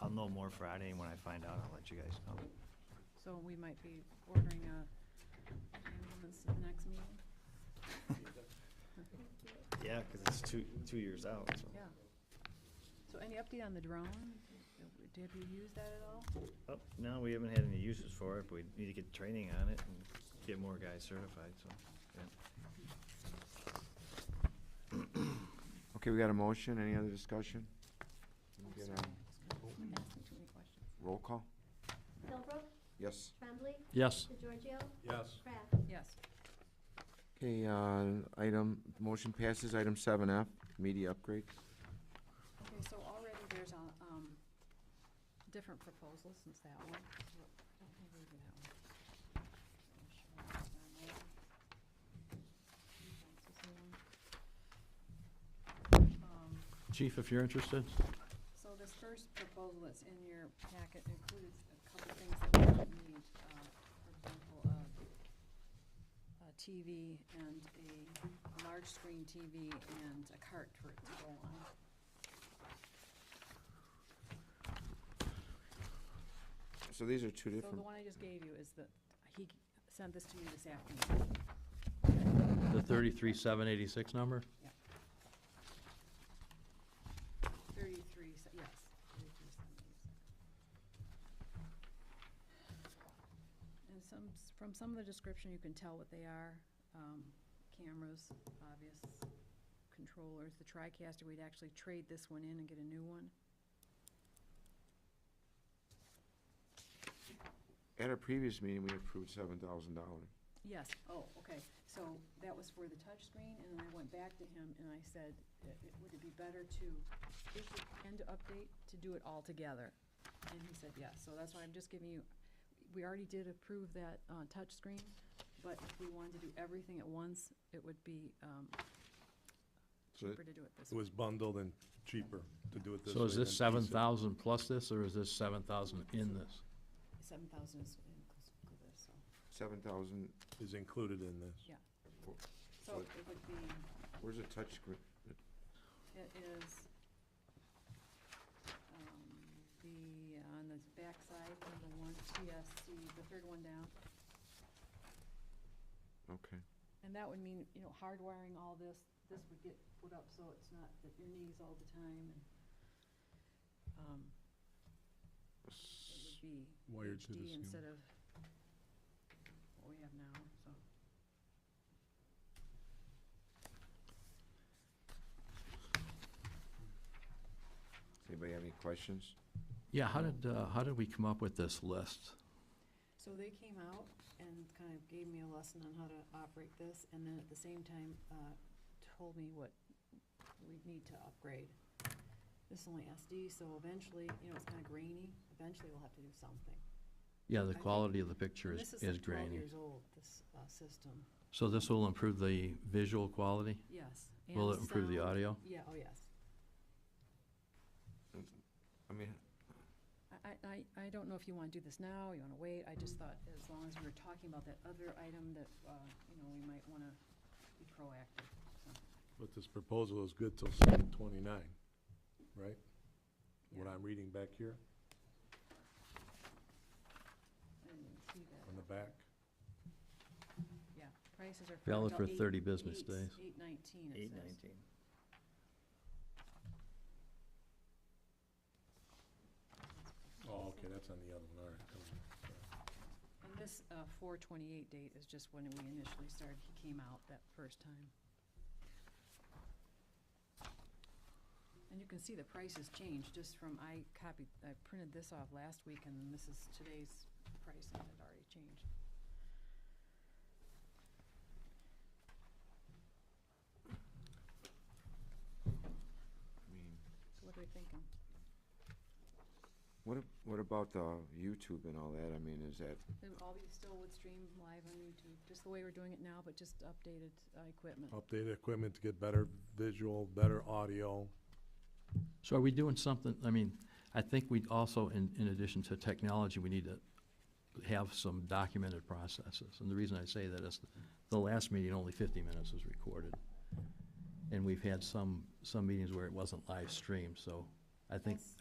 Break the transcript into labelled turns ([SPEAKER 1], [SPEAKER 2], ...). [SPEAKER 1] I'll know more Friday, and when I find out, I'll let you guys know.
[SPEAKER 2] So we might be ordering a ambulance to the next meeting?
[SPEAKER 1] Yeah, because it's two, two years out, so.
[SPEAKER 2] Yeah. So any update on the drone? Did we use that at all?
[SPEAKER 1] Oh, no, we haven't had any uses for it, but we need to get training on it and get more guys certified, so, yeah.
[SPEAKER 3] Okay, we got a motion. Any other discussion?
[SPEAKER 2] Oh,
[SPEAKER 3] Get
[SPEAKER 2] sorry,
[SPEAKER 3] on.
[SPEAKER 2] I was gonna ask you too many questions.
[SPEAKER 3] Roll call?
[SPEAKER 4] Philbrook,
[SPEAKER 3] Yes.
[SPEAKER 4] Tremblay,
[SPEAKER 5] Yes.
[SPEAKER 4] DeGiorgio,
[SPEAKER 6] Yes.
[SPEAKER 4] Kraft.
[SPEAKER 2] Yes,
[SPEAKER 3] Okay, uh, item, motion passes. Item seven F, media upgrades.
[SPEAKER 2] okay, so already there's, a, um, different proposals since that one. Don't have even that one. I'm sure it's on there. This is the one. Um,
[SPEAKER 5] Chief, if you're interested?
[SPEAKER 2] So this first proposal that's in your packet includes a couple things that we don't need, uh, for example, a- a TV and a large screen TV and a cart for it to go on.
[SPEAKER 3] So these are two
[SPEAKER 2] So the
[SPEAKER 3] different,
[SPEAKER 2] one I just gave you is the, he sent this to me this afternoon.
[SPEAKER 5] The thirty-three, seven eighty-six number?
[SPEAKER 2] Yeah. Thirty-three, se- yes, thirty-three seventies. And some, s- from some of the description, you can tell what they are. Um, Cameras, obvious, controllers, the TriCaster, we'd actually trade this one in and get a new one.
[SPEAKER 3] at our previous meeting, we approved seven thousand dollars.
[SPEAKER 2] Yes, oh, okay, so that was for the touchscreen, and then I went back to him and I said, "I- it- would it be better to issue and to update, to do it all together? And he said, yes, so that's why I'm just giving you, we already did approve that uh, touchscreen, but if we wanted to do everything at once, it would be um,
[SPEAKER 3] So
[SPEAKER 2] cheaper to do it this
[SPEAKER 6] It
[SPEAKER 2] way.
[SPEAKER 6] was bundled and cheaper to do it this way.
[SPEAKER 5] So is this
[SPEAKER 6] than piece
[SPEAKER 5] seven
[SPEAKER 6] it.
[SPEAKER 5] thousand plus this, or is this seven thousand in this?
[SPEAKER 2] Seven thousand is inclusive of this, so,
[SPEAKER 3] seven thousand,
[SPEAKER 6] Is included in this.
[SPEAKER 2] yeah.
[SPEAKER 3] Cool.
[SPEAKER 2] So it would be.
[SPEAKER 3] where's the touchscreen?
[SPEAKER 2] It is, um, the, on the backside, number one, TSC, the third one down.
[SPEAKER 3] Okay.
[SPEAKER 2] And that would mean, you know, hardwiring all this, this would get put up so it's not at your knees all the time and, um, it would be
[SPEAKER 6] Wired to the
[SPEAKER 2] HD
[SPEAKER 6] ceiling.
[SPEAKER 2] instead of what we have now, so.
[SPEAKER 3] Does Anybody have any questions?
[SPEAKER 5] Yeah, how did, uh, how did we come up with this list?
[SPEAKER 2] So they came out and kind of gave me a lesson on how to operate this, and then at the same time, uh, told me what we need to upgrade. This is only SD, so eventually, you know, it's kind of grainy, eventually we'll have to do something.
[SPEAKER 5] Yeah,
[SPEAKER 2] I
[SPEAKER 5] the
[SPEAKER 2] think-
[SPEAKER 5] quality of the picture
[SPEAKER 2] And
[SPEAKER 5] is,
[SPEAKER 2] This
[SPEAKER 5] is
[SPEAKER 2] like twelve
[SPEAKER 5] grainy.
[SPEAKER 2] years old, this, uh, system,
[SPEAKER 5] So this will improve the visual quality?
[SPEAKER 2] yes.
[SPEAKER 5] Will
[SPEAKER 2] and
[SPEAKER 5] it improve the
[SPEAKER 2] sound.
[SPEAKER 5] audio?
[SPEAKER 2] Yeah, oh, yes.
[SPEAKER 3] I mean,
[SPEAKER 2] I, I, I don't know if you want to do this now, you want to wait, I just thought as long as we were talking about that other item that, uh, you know, we might want to be proactive, so.
[SPEAKER 6] But this proposal is good till seven twenty-nine, right? What
[SPEAKER 2] yeah.
[SPEAKER 6] I'm reading back here
[SPEAKER 2] I didn't see
[SPEAKER 6] on the
[SPEAKER 2] that.
[SPEAKER 6] back.
[SPEAKER 2] Yeah, prices are.
[SPEAKER 5] Valid
[SPEAKER 2] correct.
[SPEAKER 5] for
[SPEAKER 2] Eight-
[SPEAKER 5] 30 business
[SPEAKER 2] eight-
[SPEAKER 5] days.
[SPEAKER 2] Eight nineteen, it
[SPEAKER 1] Eight
[SPEAKER 2] says.
[SPEAKER 1] nineteen.
[SPEAKER 6] Oh, okay, that's on the other one, all right. come on.
[SPEAKER 2] And this uh, four twenty-eight date is just when we initially started, he came out that first time. And you can see the prices changed just from, I copied, I printed this off last week, and then this is today's price, and it already changed.
[SPEAKER 3] I mean,
[SPEAKER 2] So what are we thinking?
[SPEAKER 3] what, ab- what about the YouTube and all that? I mean, is that,
[SPEAKER 2] It would all be still would stream live on YouTube, just the way we're doing it now, but just updated uh, equipment.
[SPEAKER 6] Updated equipment to get better visual, better audio.
[SPEAKER 5] So are we doing something, I mean, I think we also, in, in addition to technology, we need to have some documented processes. And the reason I say that is the last meeting, only fifty minutes was recorded. And we've had some, some meetings where it wasn't live streamed, so I think,
[SPEAKER 2] That's-